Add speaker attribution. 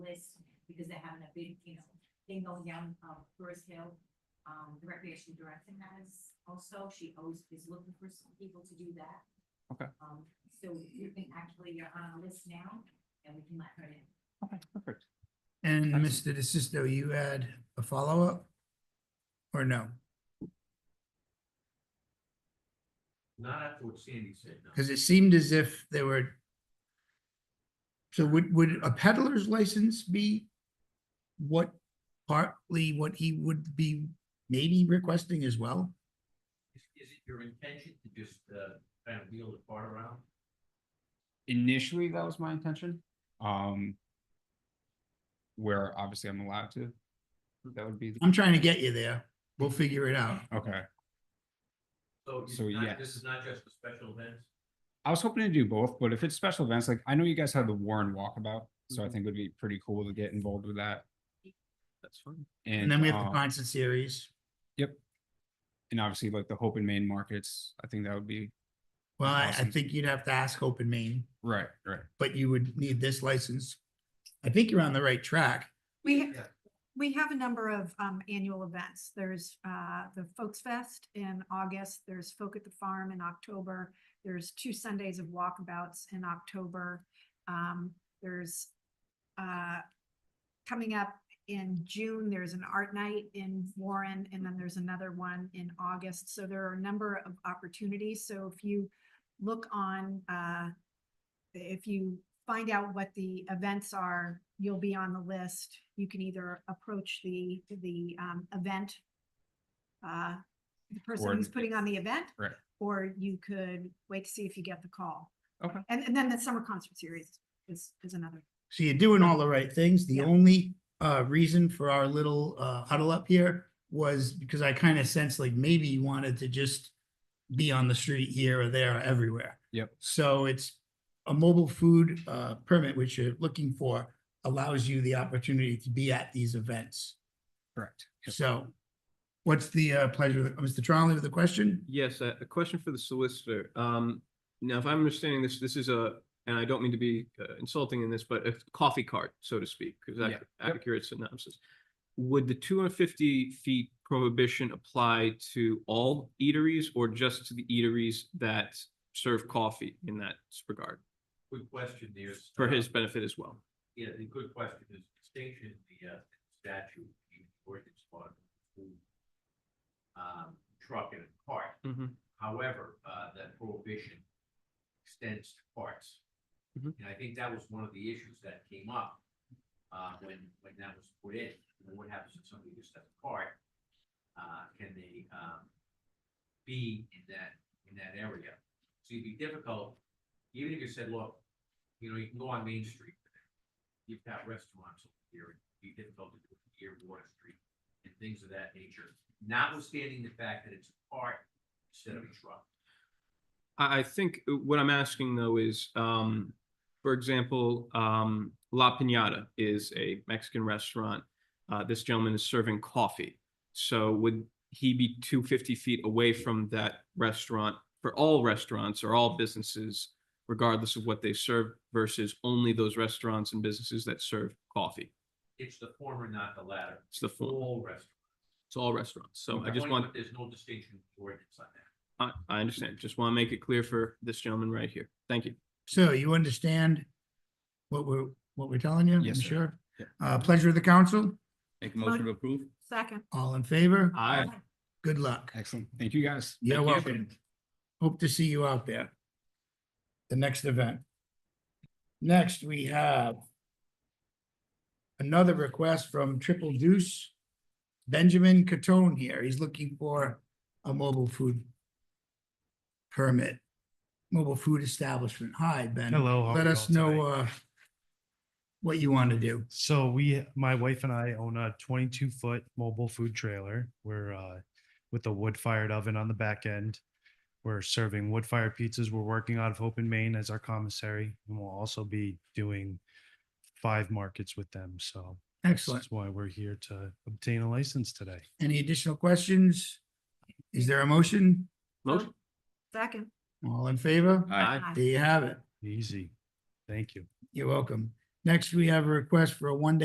Speaker 1: because they're having a big, you know, thing going down, um, Forest Hill. Um, the recreation director has also, she always is looking for some people to do that.
Speaker 2: Okay.
Speaker 1: Um, so you can actually, you're on a list now and we can let her in.
Speaker 2: Okay, perfect.
Speaker 3: And Mr.
Speaker 2: Excellent.
Speaker 3: DeSisto, you had a follow-up? Or no?
Speaker 4: Not after what Sandy said, no.
Speaker 3: Because it seemed as if there were. So would, would a peddler's license be what partly what he would be maybe requesting as well?
Speaker 4: Is, is it your intention to just, uh, kind of wheel the cart around?
Speaker 2: Initially, that was my intention. Um, where obviously I'm allowed to. That would be, the-
Speaker 3: I'm trying to get you there. We'll figure it out.
Speaker 2: okay.
Speaker 4: So
Speaker 2: So,
Speaker 4: it's not,
Speaker 2: yes.
Speaker 4: this is not just for special events?
Speaker 2: I was hoping to do both, but if it's special events, like I know you guys had the Warren Walkabout, so I
Speaker 3: Mm-hmm.
Speaker 4: Mhm.
Speaker 2: think it would be pretty cool to get involved with that.
Speaker 4: That's fine.
Speaker 3: And then we have the
Speaker 2: um,
Speaker 3: concert series.
Speaker 2: And obviously like the Hope and Main markets, I think that would be,
Speaker 3: Well, I, I
Speaker 2: awesome.
Speaker 3: think you'd have to ask Hope and Maine,
Speaker 2: right, right.
Speaker 3: but you would need this license. I think you're on the right track.
Speaker 5: We, ha-
Speaker 4: Yeah.
Speaker 5: we have a number of um, annual events. There's uh, the Folks Fest in August, there's Folk at the Farm in October, there's two Sundays of walkabouts in October. Um, There's uh, coming up in June, there's an art night in Warren, and then there's another one in August. So there are a number of opportunities. So if you look on uh, if you find out what the events are, you'll be on the list. You can either approach the, the um, event, uh, the person who's
Speaker 2: Coordinate.
Speaker 5: putting on the event.
Speaker 2: Right.
Speaker 5: Or you could wait to see if you get the call.
Speaker 2: Okay.
Speaker 5: And, and then the summer concert series is, is another.
Speaker 3: So you're doing all the right things. The
Speaker 5: Yeah.
Speaker 3: only uh reason for our little uh huddle up here was because I kind of sensed like maybe you wanted to just be on the street here or there or everywhere.
Speaker 2: Yep.
Speaker 3: So it's a mobile food uh permit, which you're looking for, allows you the opportunity to be at these events.
Speaker 2: Correct. Yep.
Speaker 3: So what's the uh pleasure, of- Mr. Trolley with the question?
Speaker 6: Yes, a, a question for the solicitor. Um, now, if I'm understanding this, this is a, and I don't mean to be uh, insulting in this, but a coffee cart, so to speak, because
Speaker 2: Yeah.
Speaker 6: that's
Speaker 2: Yep.
Speaker 6: accurate synopsis. Would the two hundred fifty feet prohibition apply to all eateries or just to the eateries that serve coffee in that regard?
Speaker 4: Good question, there's.
Speaker 6: For
Speaker 4: uh,
Speaker 6: his benefit as well.
Speaker 4: Yeah, the good question is distinction, in the uh, statute, the ordinance part. Um, truck and a cart,
Speaker 6: Mhm.
Speaker 4: however, uh, that prohibition extends to carts.
Speaker 6: Mhm.
Speaker 4: And I think that was one of the issues that came up, uh, when, when that was put in, You know, what happens if somebody just has a cart? Uh, can they, um, be in that, in that area? So it'd be difficult, even if you said, look, you know, you can go on Main Street, you've got restaurants over here, it'd be difficult to do it here, Water Street, and things of that nature, notwithstanding the fact that it's a cart instead of a truck.
Speaker 6: I, I think uh, what I'm asking though is, um, for example, um, La Piñata is a Mexican restaurant. Uh, this gentleman is serving coffee. So would he be two fifty feet away from that restaurant for all restaurants or all businesses, regardless of what they serve versus only those restaurants and businesses that serve coffee?
Speaker 4: It's the former, not the latter.
Speaker 6: It's the full,
Speaker 4: All restaurants.
Speaker 6: it's all restaurants. So I
Speaker 4: The
Speaker 6: just
Speaker 4: point,
Speaker 6: want,
Speaker 4: but There's no distinction in the ordinance on that.
Speaker 6: I, I understand. Just want to make it clear for this gentleman right here. Thank you.
Speaker 3: So you understand what we're, what we're telling you?
Speaker 2: Yes,
Speaker 3: I'm
Speaker 2: sir.
Speaker 3: Sure.
Speaker 2: Yep.
Speaker 3: Uh, pleasure of the council,
Speaker 7: Make a
Speaker 5: Motion-
Speaker 7: motion to approve?
Speaker 5: Second,
Speaker 3: all in favor?
Speaker 6: Aye.
Speaker 3: Good luck.
Speaker 2: Excellent. Thank you guys.
Speaker 3: You're
Speaker 6: Thank you.
Speaker 3: welcome. Hope to see you out there. The next event. Next, we have another request from Triple Deuce. Benjamin Catone here. He's looking for a mobile food permit. Mobile food establishment. Hi, Ben.
Speaker 8: Hello. how
Speaker 3: Let
Speaker 8: are you
Speaker 3: us
Speaker 8: all
Speaker 3: know,
Speaker 8: tonight?
Speaker 3: uh, what you want to do.
Speaker 8: So we, my wife and I own a twenty-two foot mobile food trailer. We're, uh, with a wood fired oven on the back end. We're serving wood fired pizzas. We're working out of Hope and Maine as our commissary and we'll also be doing five markets with them. So
Speaker 3: Excellent.
Speaker 8: that's why we're here to obtain a license today.
Speaker 3: Any additional questions? Is there a motion?
Speaker 6: Motion?
Speaker 5: second.
Speaker 3: All in favor?
Speaker 7: Aye.
Speaker 5: Aye.
Speaker 3: There you have it.
Speaker 8: Easy. Thank you.
Speaker 3: You're welcome. Next, we have a request for a one-day